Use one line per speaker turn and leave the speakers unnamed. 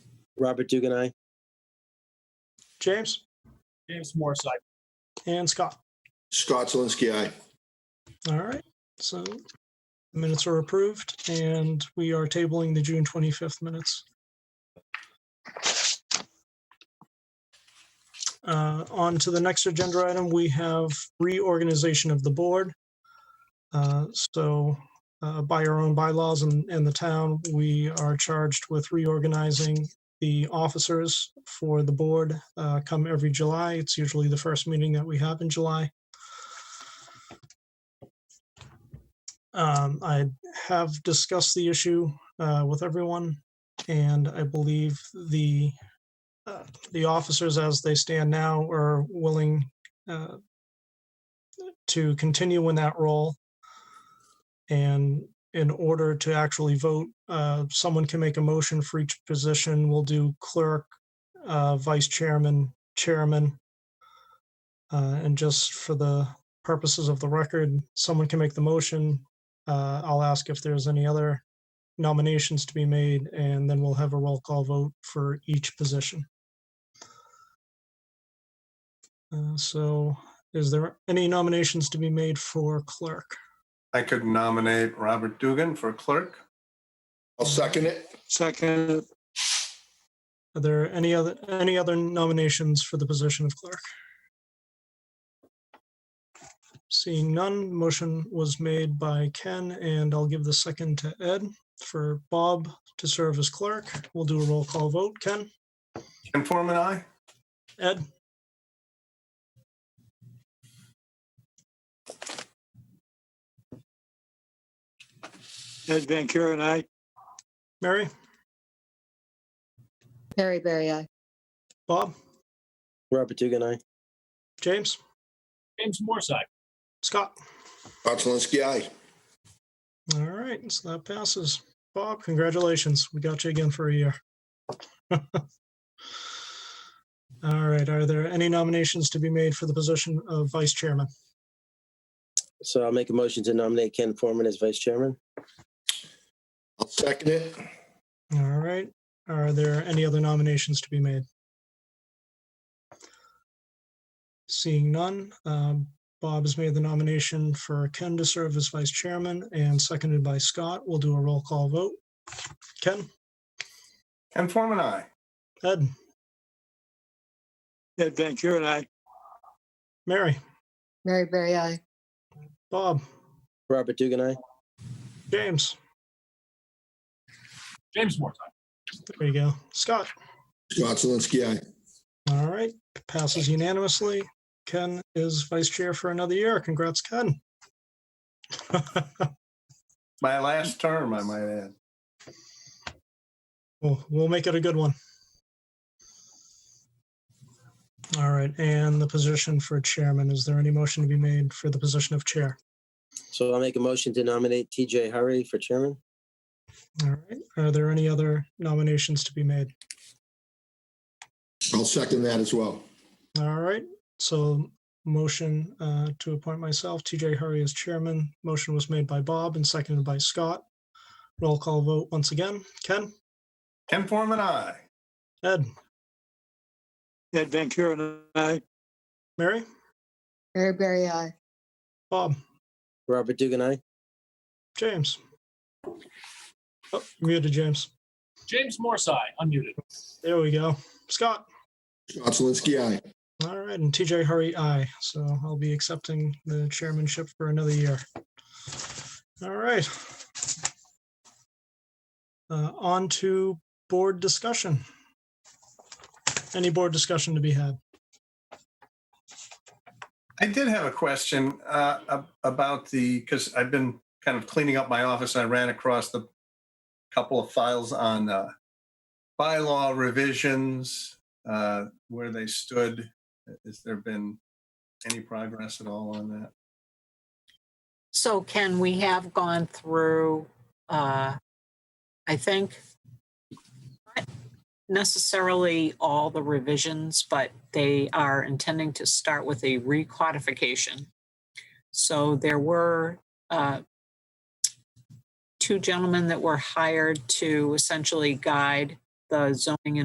Robert Dugan, aye.
James
James Morse, aye.
and Scott.
Scott Zelinski, aye.
All right, so the minutes are approved and we are tabling the June 25th minutes. Uh, On to the next agenda item, we have reorganization of the board. Uh, So uh, by our own bylaws and, and the town, we are charged with reorganizing the officers for the board uh, come every July. It's usually the first meeting that we have in July. Um, I have discussed the issue uh, with everyone, and I believe the uh, the officers, as they stand now, are willing uh, to continue in that role. And in order to actually vote, uh, someone can make a motion for each position. We'll do clerk, uh, vice chairman, chairman, uh, and just for the purposes of the record, someone can make the motion. Uh, I'll ask if there's any other nominations to be made, and then we'll have a roll call vote for each position. Uh, so, is there any nominations to be made for clerk?
I could nominate Robert Dugan for clerk.
I'll second it.
Second,
Are there any other any other nominations for the position of clerk? Seeing none, motion was made by Ken, and I'll give the second to Ed for Bob to serve as clerk. We'll do a roll call vote. Ken,
Ken Forman, aye.
Ed,
Ed Van Kuren, aye.
Mary,
Mary Berry, aye.
Bob,
Robert Dugan, aye.
James,
James Morse, aye.
Scott.
Scott Zelinski, aye.
All right, so that passes. Bob, congratulations. We got you again for a year. All right, are there any nominations to be made for the position of vice chairman?
So I'll make a motion to nominate Ken Forman as vice chairman.
I'll second it.
All right. Are there any other nominations to be made? Seeing none, um, Bob has made the nomination for Ken to serve as vice chairman and seconded by Scott. We'll do a roll call vote. Ken,
Ken Forman, aye.
Ed,
Ed Van Kuren, aye.
Mary,
Mary Berry, aye.
Bob,
Robert Dugan, aye.
James.
James Morse, aye.
There you go. Scott.
Scott Zelinski, aye.
All right. Passes unanimously. Ken is vice chair for another year. Congrats, Ken.
My last term, I might add.
We'll, we'll make it a good one. All right, and the position for chairman, is there any motion to be made for the position of chair?
So I'll make a motion to nominate TJ Hurry for chairman.
All right, are there any other nominations to be made?
I'll second that as well.
All right, so motion uh, to appoint myself, TJ Hurry as chairman. Motion was made by Bob and seconded by Scott. Roll call vote once again. Ken?
Ken Forman, aye.
Ed?
Ed Van Kuren, aye.
Mary?
Mary Berry, aye.
Bob?
Robert Dugan, aye.
James? Oh, Muted, James.
James Morse, aye, unmuted.
There we go. Scott?
Scott Zelinski, aye.
All right, and TJ Hurry, aye. So I'll be accepting the chairmanship for another year. All right. Uh, on to board discussion. Any board discussion to be had?
I did have a question uh, ab- about the, because I've been kind of cleaning up my office. I ran across the couple of files on uh, bylaw revisions, uh, where they stood. Has there been any progress at all on that?
So Ken, we have gone through, uh, I think, not necessarily all the revisions, but they are intending to start with a recodification. So there were uh, two gentlemen that were hired to essentially guide the zoning and